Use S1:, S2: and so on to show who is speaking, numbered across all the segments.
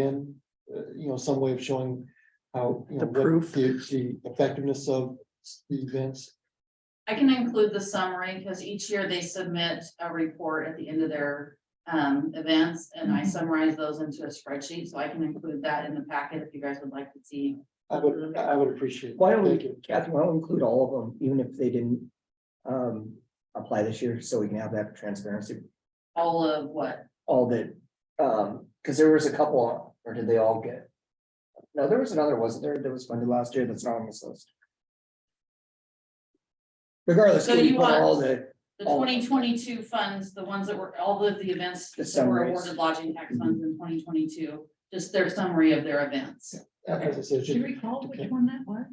S1: in, uh, you know, some way of showing how, you know,
S2: The
S1: what
S2: proof.
S1: The the effectiveness of the events.
S3: I can include the summary, because each year they submit a report at the end of their um events, and
S4: Mm-hmm.
S3: I summarize those into a spreadsheet, so I can include that in the packet if you guys would like to see.
S1: I would, I would appreciate. it.
S2: Why don't
S1: Thank
S2: we,
S1: you.
S2: Kathy, why don't we include all of them, even if they didn't um apply this year, so we can have that transparency,
S3: All of what,
S2: all the um, because there was a couple, or did they all get? No, there was another, wasn't there, that was funded last year that's not on this list. Regardless,
S3: So
S2: can we
S3: you
S2: put
S3: want-
S2: all the,
S3: the
S2: All of them.
S3: twenty twenty-two funds, the ones that were, all of the events
S2: The
S3: that were
S2: summaries.
S3: awarded lodging
S4: Mm-hmm.
S3: tax funds in twenty twenty-two, just their summary of their events.
S1: As I said,
S5: Do you
S1: just-
S5: recall
S1: Okay.
S5: which one that was?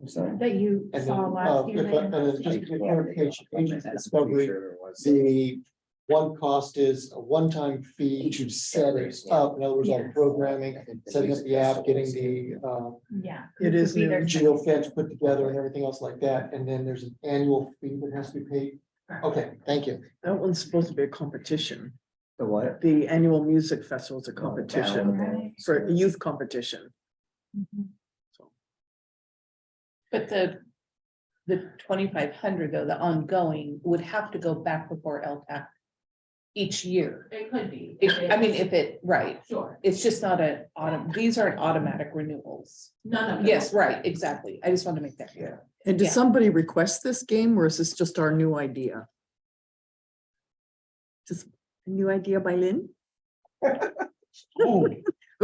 S2: I'm sorry.
S5: That you
S1: and then,
S5: saw
S1: uh,
S5: last year?
S1: if I- and
S5: Megan?
S1: then just to get clarification, agent discovery,
S2: Discovery.
S1: The one cost is a one-time fee to set it up, in other words, like programming, setting up the app, getting the uh.
S5: Yeah.
S1: It
S5: is new.
S1: Geofence put together and everything else like that, and then there's an annual fee that has to be paid. Okay, thank you.
S6: That one's supposed to be a competition.
S2: The what?
S6: The annual music festival
S2: Oh,
S6: is a competition for youth competition.
S5: Mhm.
S6: So
S4: But the, the twenty-five hundred though, the ongoing would have to go back before LTAC each year.
S3: It could be.
S4: If- I mean, if it, right,
S3: Sure,
S4: it's just not a, autumn. these aren't automatic renewals.
S3: none of them.
S4: Yes, right, exactly. I just want to make that clear.
S6: And did
S4: Yeah.
S6: somebody request this game or is this just our new idea? Just a new idea by Lynn? Oh,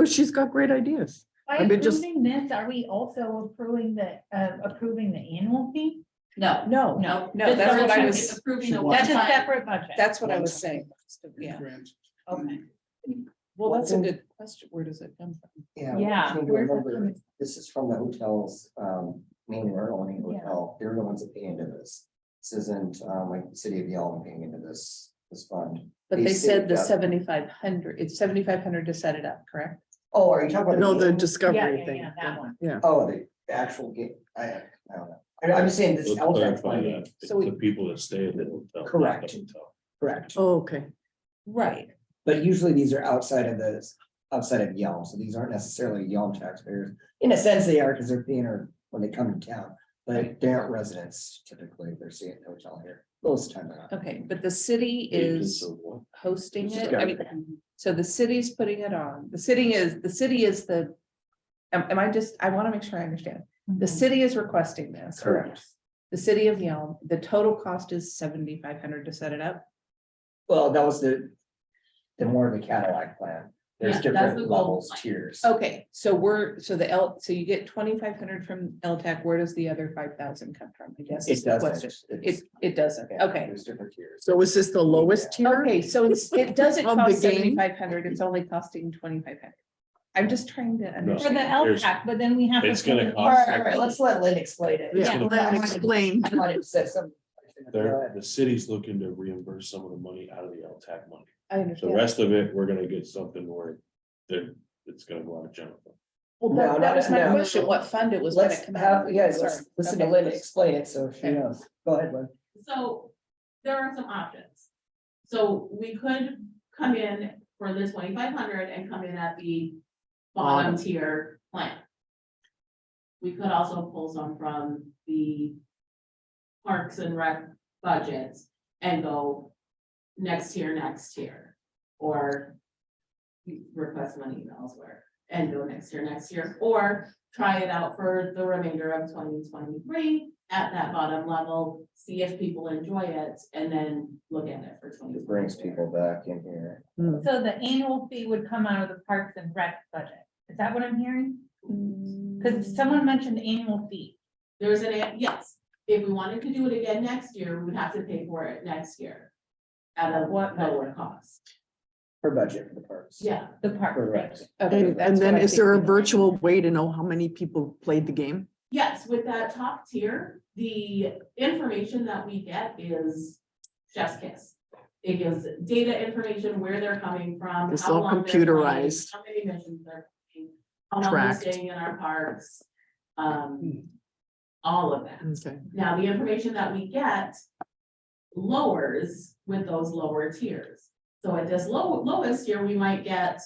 S6: she's got great ideas.
S5: By
S6: I've been just-
S5: approving this, are we also approving the, uh, approving the annual fee?
S3: No,
S4: No,
S5: No.
S4: No, that's what I was-
S3: It's Approving the one
S5: That's a
S3: time,
S5: separate budget.
S4: that's what I was saying. Yeah,
S5: Okay.
S4: well, that's a good question. Where does it come from?
S5: Yeah.
S2: Seem to
S5: where's that
S2: remember,
S5: coming-
S2: This is from the hotels, um, main rural and hotel, they're the ones that pay into this. This isn't, um, like the city of Yellow paying into this, this fund.
S4: But they said the
S2: saved up-
S4: seventy-five hundred, it's seventy-five hundred to set it up, correct?
S2: Oh, are you talking about?
S6: No, the
S2: game?
S5: Yeah,
S6: discovery
S5: yeah,
S6: thing.
S5: yeah, that one.
S6: Yeah,
S2: Oh, the the actual game, I, I don't know, I- I'm just saying this.
S7: Let's
S2: LTAC
S7: clarify
S2: funding.
S7: that. It's
S4: So we-
S7: The people that stay at the hotel. not the
S2: Correct.
S7: hotel.
S2: Correct,
S6: oh, okay.
S4: Right.
S2: but usually these are outside of this, outside of Yelm, so these aren't necessarily Yelm taxpayers. In a sense, they are, because they're paying her when they come to town, but they aren't residents typically, they're staying at the hotel here, most of the time they're not.
S4: Okay, but the city is
S7: Agents of what?
S4: hosting it. I
S2: Discovery.
S4: mean, So the city's putting it on, the city is, the city is the, am, am I just, I wanna make sure I understand, the
S5: Mm-hmm.
S4: city is requesting this.
S2: Correct.
S4: The city of Yelm, the total cost is seventy-five hundred to set it up,
S2: Well, that was the, the more of the Cadillac plan, there's
S3: Yeah, that's the
S2: different
S3: goal
S2: levels,
S3: line.
S2: tiers.
S4: okay, so we're, so the L, so you get twenty-five hundred from LTAC, where does the other five thousand come from, I guess? is
S2: It
S4: the question.
S2: doesn't.
S4: It,
S2: it's-
S4: it doesn't,
S2: yeah,
S4: okay,
S2: There's different tiers.
S6: So is this the lowest tier?
S4: okay, so it's, it doesn't
S6: Of the
S4: cost
S6: game?
S4: seventy-five hundred, it's only costing twenty-five hundred. I'm just trying to
S5: For the
S4: understand,
S7: There's-
S5: LTAC, but then we have.
S7: It's gonna
S5: pay-
S7: cost- All right, all right,
S2: let's let Lynn explain it.
S6: Yeah,
S5: Yeah.
S6: Lynn explained.
S7: They're, the city's looking to reimburse some of the money out of the LTAC money.
S4: I
S7: The
S4: understand.
S7: rest of it, we're gonna get something where they're, it's gonna go out of general. fund.
S4: Well,
S2: No,
S4: that, that
S2: no,
S4: was my
S2: no.
S4: question, what fund it was. when
S2: Let's
S4: it come out
S2: have,
S4: of.
S2: yeah, let's
S4: Sorry.
S2: listen to
S4: Okay.
S2: Lynn explain it, so she
S4: Okay.
S2: knows. Go ahead, Lynn.
S8: So there are some options. So we could come in for the twenty-five hundred and come in at the bottom tier plan. We could also pull some from the parks and rec budgets and go next tier, next tier. Or request money elsewhere and go next year, next year, or try it out for the remainder of twenty twenty-three at that bottom level, see if people enjoy it, and then look at it for twenty.
S2: It brings people back in here.
S5: So the annual fee would come out of the Parks and Rec budget. Is that what I'm hearing? Because someone mentioned annual fee.
S8: There's an, a- yes, if we wanted to do it again next year, we would have to pay for it next year. At a what lower cost,
S2: Her budget for the parks.
S8: yeah,
S5: The park.
S2: Correct.
S4: Okay,
S6: And,
S4: that's
S6: and then
S4: what I
S6: is there a
S4: think.
S6: virtual way to know how many people played the game?
S8: yes, with that top tier, the information that we get is chef's kiss. It gives data information, where they're coming from.
S6: It's
S8: how
S6: all
S8: long they're playing,
S6: computerized.
S8: How many missions they're playing, how long they're
S6: Tracked. Hmm.
S8: staying in our parks, um, all of that.
S6: Okay.
S8: Now, the information that we get lowers with those lower tiers. So at this low, lowest tier, we might get